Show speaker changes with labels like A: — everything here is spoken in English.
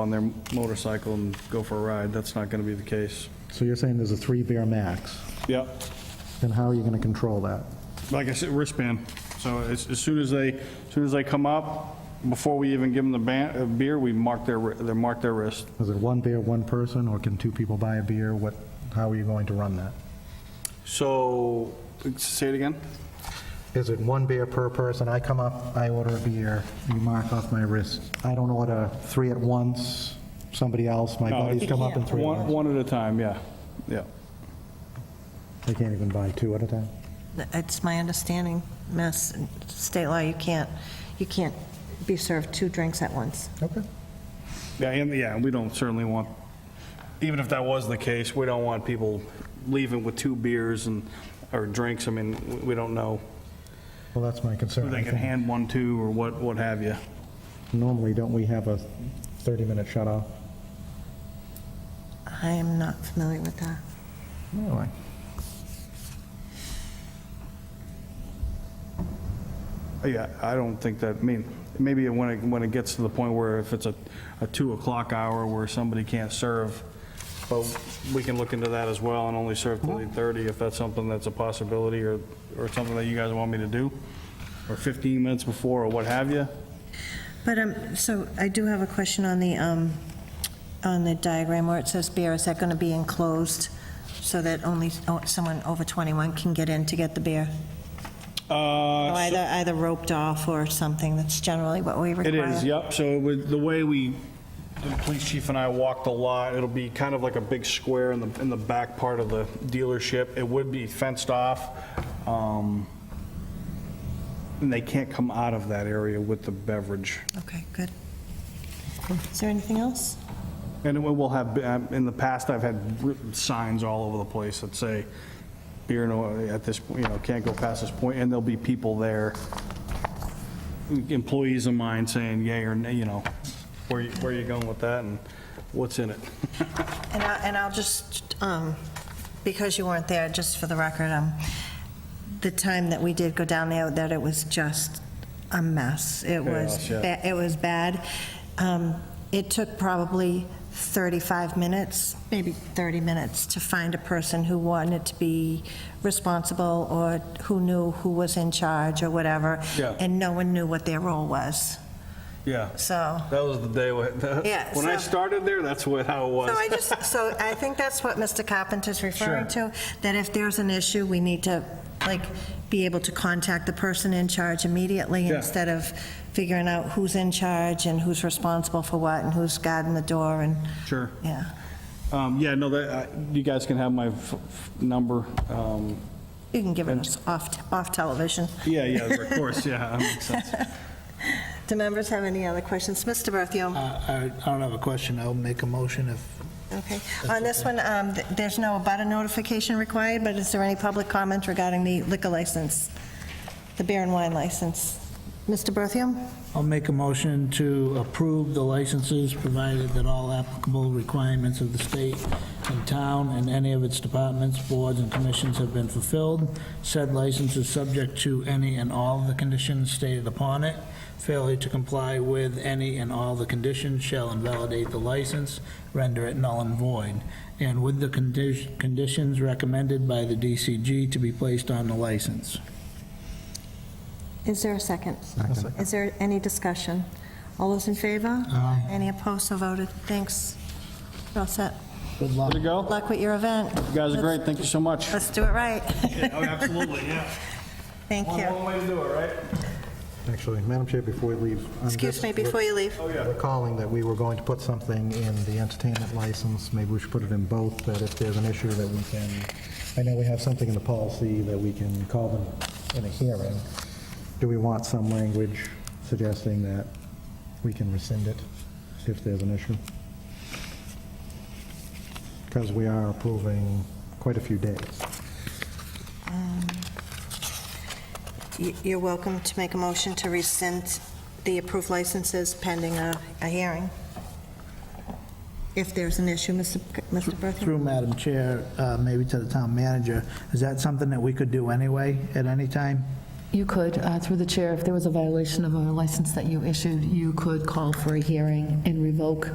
A: on their motorcycle and go for a ride. That's not going to be the case.
B: So you're saying there's a three beer max,
A: Yep.
B: then how are you going to control that?
A: Like I said, wristband. So as, as soon as they, as soon as they come up, before we even give them the ban, uh, beer, we mark their, wri- they mark their wrist.
B: Is it one beer, one person, or can two people buy a beer? What, how are you going to run that?
A: So, say it again?
B: Is it one beer per person? I come up, I order a beer, you mark off my wrist. I don't order three at once, somebody else, my
A: No,
B: buddies
A: it's-
B: come up and three at
A: One,
B: once.
A: one at a time, yeah, yeah.
B: They can't even buy two at a time?
C: It's my understanding, Mass state law, you can't, you can't be served two drinks at once.
B: Okay.
A: Yeah, and, yeah, we don't certainly want, even if that was the case, we don't want people leaving with two beers and, or drinks. I mean, we- we don't know
B: Well, that's my concern.
A: who they
B: I
A: can
B: think
A: hand one to or what, what have you.
B: Normally, don't we have a 30-minute shut-off?
C: I am not familiar with that.
B: Really?
A: Yeah, I don't think that, I mean, maybe when it, when it gets to the point where if it's a, a 2 o'clock hour where somebody can't serve, but we can look into that as well and only serve till 8:30 if that's something that's a possibility or, or something that you guys want me to do, or 15 minutes before or what have you.
C: But, um, so I do have a question on the, um, on the diagram where it says beer, is that going to be enclosed so that only oh, someone over 21 can get in to get the beer?
A: Uh,
C: Or Either, either roped off or something, that's generally what we
A: It
C: require.
A: is, yep, so it would- the way we, the police chief and I walked the lot, it'll be kind of like a big square in the, in the back part of the dealership. It would be fenced off, um, and they can't come out of that area with the beverage.
C: Okay, good. Is there anything else?
A: And we will have, um, in the past, I've had written signs all over the place that say, beer no, at this, you know, can't go past this point, and there'll be people there, employees of mine saying yay or nay, you know, where, you- where you going with that and what's in it.
C: And I, and I'll just, um, because you weren't there, just for the record, um, the time that we did go down there, that it was just a mess. It was,
A: Chaos, yeah.
C: ba- it was bad. Um, it took probably 35 minutes, maybe 30 minutes, to find a person who wanted to be responsible or who knew who was in charge or whatever.
A: Yeah.
C: And no one knew what their role was,
A: Yeah,
C: so.
A: that was the day when,
C: Yeah, when I so-
A: started there, that's what, how it
C: So I just, so I think that's what Mr. Carpenter's referring to, that if there's an issue, we need to, like, be able to contact the person in charge immediately
A: Yeah.
C: instead of figuring out who's in charge and who's responsible for what and who's guarding the door and,
A: Sure.
C: yeah.
A: Um, yeah, no, that, I- you guys can have my f- f- number. um,
C: You can give it us off, off television.
A: Yeah, yeah, of course, yeah, that makes sense.
C: Do members have any other questions? Mr. Berthium?
D: I I don't have a question. I'll make a motion if,
C: Okay. On this one, um, th- there's no abutter notification required, but is there any public comment regarding the liquor license, the beer and wine license? Mr. Berthium?
D: I'll make a motion to approve the licenses, provided that all applicable requirements of the state and town and any of its departments, boards, and commissions have been fulfilled. Said license is subject to any and all of the conditions stated upon it. Failure to comply with any and all the conditions shall invalidate the license, render it null and void, and with the condi- conditions recommended by the DCG to be placed on the license.
C: Is there a second? Is there any discussion? All those in favor?
D: Aye.
C: Any opposed, so voted. Thanks. You're all set.
D: Good luck.
A: There you go.
C: Good luck with your event.
A: You guys are great, thank you so much.
C: Let's do it right.
A: Oh, absolutely, yeah.
C: Thank you.
A: way to do it, right?
B: Actually, Madam Chair, before we leave. on
C: Excuse
B: this,
C: me,
B: we're-
C: before you
A: Oh,
C: leave,
B: recalling that we were going to put something in the entertainment license, maybe we should put it in both, that if there's an issue that we can, I know we have something in the policy that we can call them in a hearing. Do we want some language suggesting that we can rescind it if there's an issue? Because we are approving quite a few days.
C: y- you're welcome to make a motion to rescind the approved licenses pending a, a hearing. If there's an issue, Mr. C- Mr. Berthium?
D: Through Madam Chair, uh, maybe to the town manager, is that something that we could do anyway, at any time?
E: You could, uh, through the chair, if there was a violation of a license that you issued, you could call for a hearing and revoke